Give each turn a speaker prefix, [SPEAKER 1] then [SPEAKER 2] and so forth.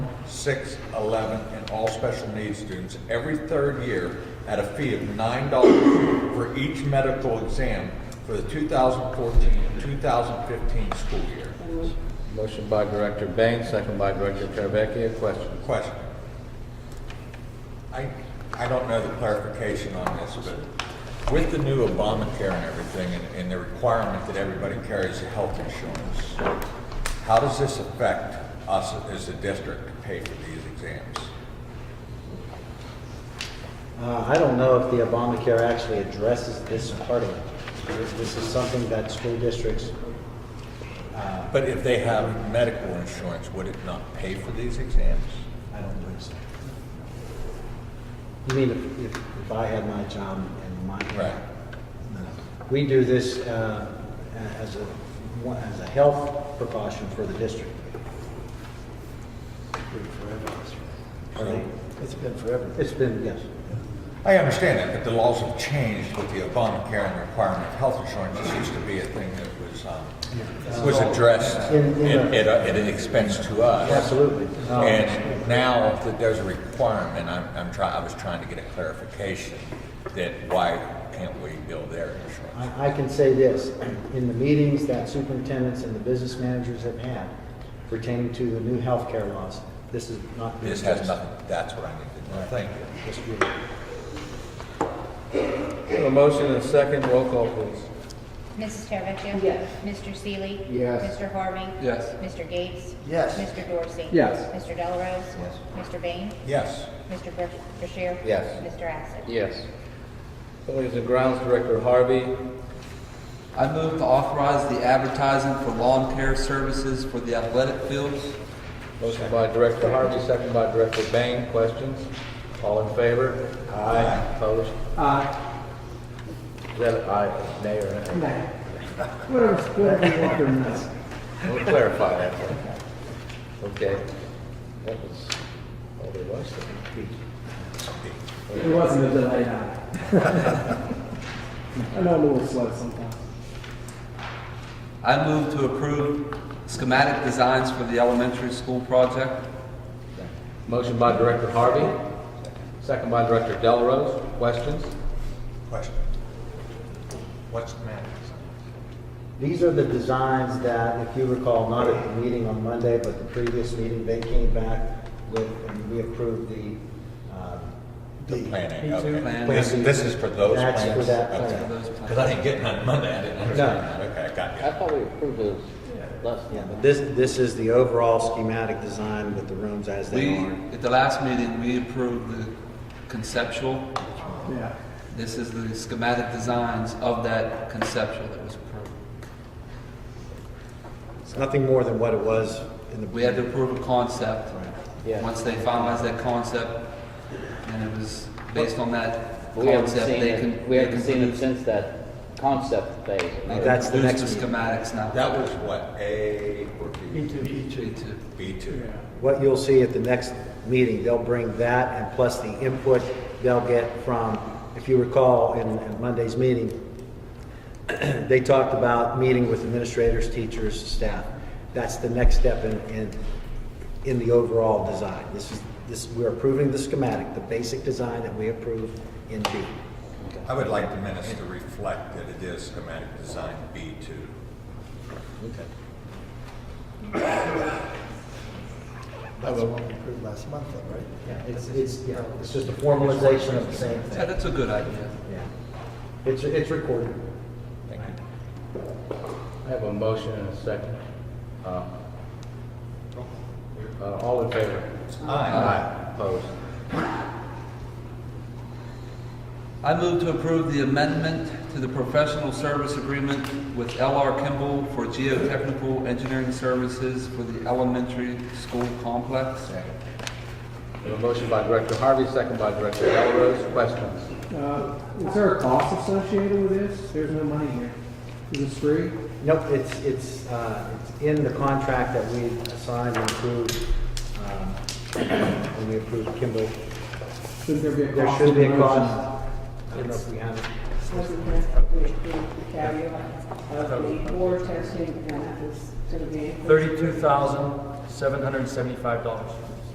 [SPEAKER 1] six, eleven, and all special needs students every third year at a fee of nine dollars for each medical exam for the 2014-2015 school year.
[SPEAKER 2] Motion by Director Bain, second by Director Teravicki. Questions?
[SPEAKER 1] Question. I, I don't know the clarification on this, but with the new Obamacare and everything, and, and the requirement that everybody carries health insurance, how does this affect us as a district to pay for these exams?
[SPEAKER 3] Uh, I don't know if the Obamacare actually addresses this part of it. This- This is something that school districts,
[SPEAKER 1] But if they have medical insurance, would it not pay for these exams?
[SPEAKER 3] I don't believe so. You mean if, if- if I had my job and my.
[SPEAKER 1] Right.
[SPEAKER 3] No. We do this uh, as a, one- as a health precaution for the district.
[SPEAKER 1] So-
[SPEAKER 4] It's been forever.
[SPEAKER 3] It's been, yes.
[SPEAKER 1] I understand that, but the laws have changed with the Obamacare and requirement of health insurance. This used to be a thing that was, um, was addressed
[SPEAKER 3] In- in
[SPEAKER 1] at,
[SPEAKER 3] a-
[SPEAKER 1] at a- at an expense to us.
[SPEAKER 3] Absolutely. Um,
[SPEAKER 1] And now that there's a requirement, I'm, I'm trying, I was trying to get a clarification that why can't we bill their insurance?
[SPEAKER 3] I, I can say this, in the meetings that superintendents and the business managers have had pertaining to the new healthcare laws, this is not. being
[SPEAKER 1] This has
[SPEAKER 3] addressed.
[SPEAKER 1] nothing, that's what I need to know. Thank you.
[SPEAKER 3] This group.
[SPEAKER 2] A motion and a second, roll call please.
[SPEAKER 5] Mrs. Teravicki?
[SPEAKER 6] Yes.
[SPEAKER 5] Mr. Seeley?
[SPEAKER 4] Yes.
[SPEAKER 5] Mr. Harvey?
[SPEAKER 2] Yes.
[SPEAKER 5] Mr. Gates?
[SPEAKER 4] Yes.
[SPEAKER 5] Mr. Dorsey?
[SPEAKER 4] Yes.
[SPEAKER 5] Mr. Delarose?
[SPEAKER 4] Yes.
[SPEAKER 5] Mr. Bain?
[SPEAKER 1] Yes,
[SPEAKER 5] Mr. Br- Brashear?
[SPEAKER 4] Yes.
[SPEAKER 5] Mr. Assett?
[SPEAKER 2] Yes. Buildings and Grounds Director Harvey,
[SPEAKER 7] I move to authorize the advertising for lawn care services for the athletic fields.
[SPEAKER 2] motion by Director Harvey, second by Director Bain. Questions? All in favor? Aye. Opposed?
[SPEAKER 4] Uh,
[SPEAKER 2] Is that aye, nay, or nay?
[SPEAKER 4] nah. Whatever, whatever you want to miss.
[SPEAKER 2] We'll clarify that. one. Okay. That was all there was. to it.
[SPEAKER 4] It wasn't a delay now. I know I'm a little slow sometimes.
[SPEAKER 7] I move to approve schematic designs for the elementary school project.
[SPEAKER 2] Motion by Director Harvey, second by Director Delarose. Questions?
[SPEAKER 1] question. What's the matter?
[SPEAKER 3] These are the designs that, if you recall, not at the meeting on Monday, but the previous meeting, they came back with, and we approved the, uh,
[SPEAKER 1] The planning, okay.
[SPEAKER 7] Plan.
[SPEAKER 1] This, this is for those
[SPEAKER 3] That's
[SPEAKER 1] plans?
[SPEAKER 3] for that plan.
[SPEAKER 1] Because I didn't get none Monday, I didn't understand that. Okay, I got you.
[SPEAKER 2] thought we approved those last
[SPEAKER 3] yeah, but this, this is the overall schematic design with the rooms as
[SPEAKER 7] We,
[SPEAKER 3] they are.
[SPEAKER 7] at the last meeting, we approved the conceptual.
[SPEAKER 4] Yeah.
[SPEAKER 7] This is the schematic designs of that conceptual that was approved.
[SPEAKER 3] It's nothing more than what it was in the.
[SPEAKER 7] We had to approve a concept.
[SPEAKER 2] Yeah.
[SPEAKER 7] Once they finalized that concept, and it was based on that
[SPEAKER 8] We haven't
[SPEAKER 7] concept,
[SPEAKER 8] seen
[SPEAKER 7] they can.
[SPEAKER 8] it, we
[SPEAKER 7] they
[SPEAKER 8] haven't
[SPEAKER 7] can
[SPEAKER 8] seen it
[SPEAKER 7] produce-
[SPEAKER 8] since that concept phase.
[SPEAKER 7] they can
[SPEAKER 3] That's the
[SPEAKER 7] produce
[SPEAKER 3] next meeting.
[SPEAKER 7] Schematics now.
[SPEAKER 1] That was what, A or B?
[SPEAKER 7] B two.
[SPEAKER 1] B two.
[SPEAKER 3] What you'll see at the next meeting, they'll bring that and plus the input they'll get from, if you recall, in in Monday's meeting, they talked about meeting with administrators, teachers, staff. That's the next step in, in, in the overall design. This is, this, we're approving the schematic, the basic design that we approve in B.
[SPEAKER 1] I would like the minutes to reflect that it is schematic design B2.
[SPEAKER 4] That's the one we approved last month, though, right?
[SPEAKER 3] Yeah, It's, it's, yeah, it's just a formalization of the same
[SPEAKER 7] Yeah,
[SPEAKER 3] thing.
[SPEAKER 7] that's a good idea.
[SPEAKER 3] Yeah. It's, it's recorded.
[SPEAKER 2] I have a motion and a second. Uh, uh, All in favor? Aye. Opposed?
[SPEAKER 7] I move to approve the amendment to the professional service agreement with LR Kimball for geotechnical engineering services for the elementary school complex.
[SPEAKER 2] We have A motion by Director Harvey, second by Director Delarose. Questions?
[SPEAKER 4] Uh, is there a cost associated with this? There's no money here. Is this free?
[SPEAKER 3] Nope, it's, it's, uh, it's in the contract that we assigned and approved, um, when we approved Kimball.
[SPEAKER 4] Shouldn't there be a
[SPEAKER 3] There
[SPEAKER 4] cost?
[SPEAKER 3] should be a
[SPEAKER 4] of motion?
[SPEAKER 3] cost. I don't know if we have it.
[SPEAKER 6] Wasn't that we approved the caveat of the war testing and that was to the.
[SPEAKER 9] $32,775.